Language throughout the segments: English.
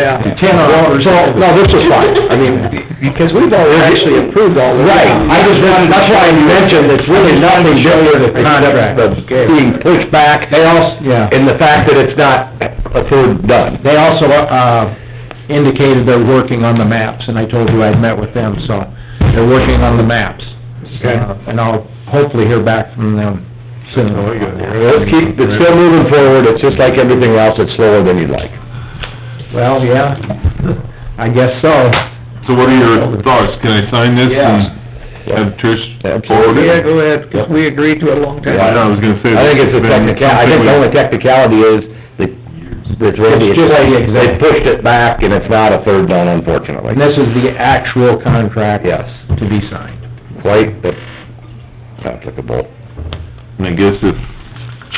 Yeah. You cannot resolve. No, this is fine, I mean, because we've already actually approved all this. Right, I just wanted, that's why I mentioned it's really nothing doing with the contract, of being pushed back. They also, and the fact that it's not approved, done. They also, uh, indicated they're working on the maps, and I told you I'd met with them, so they're working on the maps. Okay. Uh, And I'll hopefully hear back from them soon. Oh, yeah. Let's keep, it's still moving forward, it's just like everything else, it's slower than you'd like. Well, yeah, I guess so. So what are your thoughts? Can I sign this and have Trish forward it? Yeah, go ahead, 'cause we agreed to it a long time. I was gonna say. I think it's a technicality, I think the only technicality is, that, that really, It's just like the they exec- pushed it back, and it's not a third down unfortunately. And this is the actual contract Yes, to be signed. quite the- applicable. And I guess if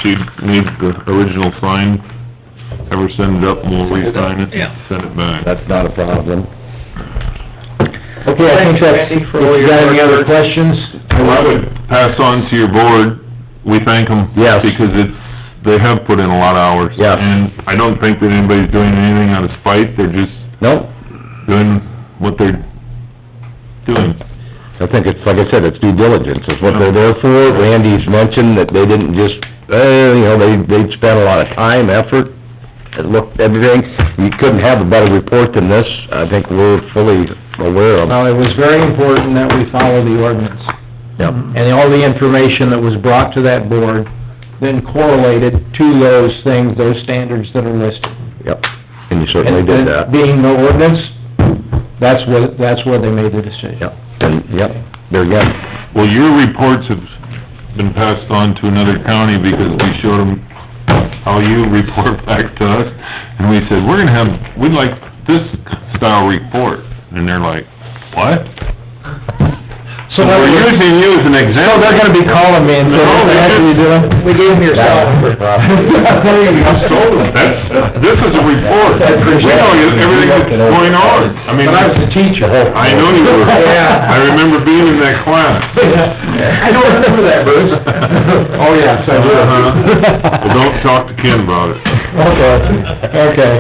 she needs the original sign, have her send it up and we'll re-sign it, and send it back. That's not a problem. Okay, I think Thanks, that's, Randy, for all if you your got any hard other work. questions? Well, I would pass on to your board, we thank them. Yes. Because it's, they have put in a lot of hours. Yes. And I don't think that anybody's doing anything out of spite, they're just Nope, doing what they're doing. I think it's, like I said, it's due diligence, it's what they're there for. Randy's mentioned that they didn't just, eh, you know, they, they spent a lot of time, effort, and looked, everything. You couldn't have a better report than this, I think we're fully aware of. Well, it was very important that we follow the ordinance. Yep. Mm-hmm. And all the information that was brought to that board then correlated to those things, those standards that are listed. Yep, and you certainly did that. And Being no ordinance, that's what, that's where they made the decision. Yep, and, yep, there again, Well, your reports have been passed on to another county because we showed them how you report back to us, and we said, we're gonna have, we'd like this style report, and they're like, what? So that We're was- using you as an So example. they're gonna be calling me and saying, what the heck are you doing? We gave him your cell number. There you go. That's, this is a report, I we appreciate it. know everything that's going on, I mean, But I was a I teacher. know you were, Yeah. I remember being in that class. I don't remember that, Bruce. Oh, yes, I do. Uh-huh. Well, don't talk to Ken about it. Oh, Okay, okay.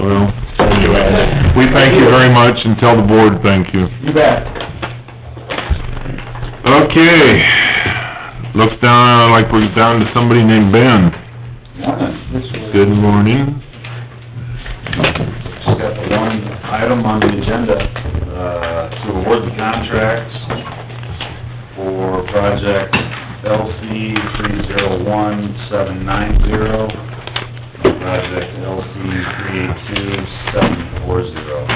Well, anyway, we thank you very much and tell the board thank you. You bet. Okay, looks down, like we're down to somebody named Ben. Good morning. Just got the one item on the agenda, uh, to award the contracts for project LC three zero one seven nine zero, project LC three eight two seven four zero.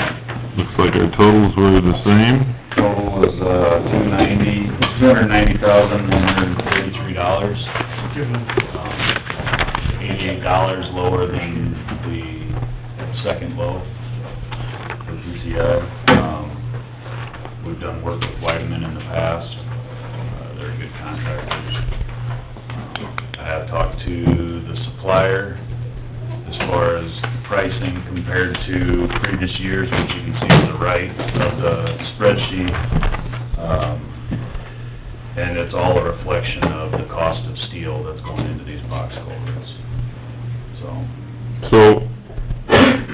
Looks like our totals were the same. Total is, uh, two ninety, two hundred ninety thousand, one hundred and thirty-three dollars. Um, Eighty-eight dollars lower than the second low for PCI. Um, we've done work with Whiteman in the past. Uh, They're good contractors. Um, I have talked to the supplier as far as pricing compared to previous years, which you can see on the right of the spreadsheet. Um, And it's all a reflection of the cost of steel that's going into these box culverts. So, So,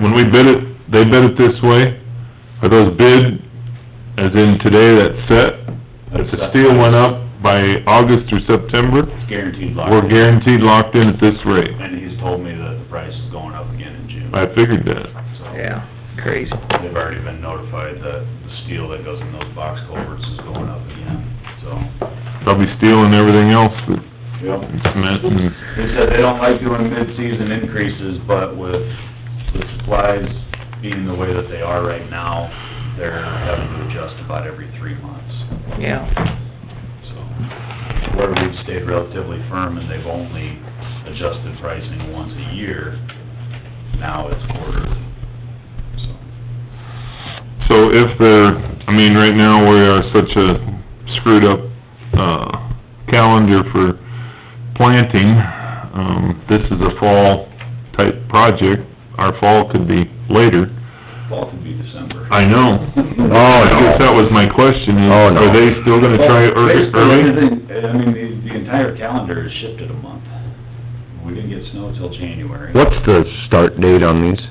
when we bid it, they bid it this way? Are those bid, as in today, that's set? If the steel went up by August or September, guaranteed lock. we're guaranteed locked in at this rate. And he's told me that the price is going up again in June. I figured that. So Yeah, crazy. They've already been notified that the steel that goes in those box culverts is going up again, so. probably steel and everything else that Yep. cement and, They said they don't like doing mid-season increases, but with the supplies being the way that they are right now, they're having to adjust about every three months. Yeah, So, where we've stayed relatively firm and they've only adjusted pricing once a year, now it's quarterly. So, so if they're, I mean, right now, we are such a screwed up, uh, calendar for planting, um, this is a fall type project, our fall could be later. fall could be December. I know. Oh, I no. guess that was my question, is, Oh, no. are they still gonna try ear- Basically, early? everything- I mean, the, the entire calendar is shifted a month. We didn't get snow till January. What's the start date on these?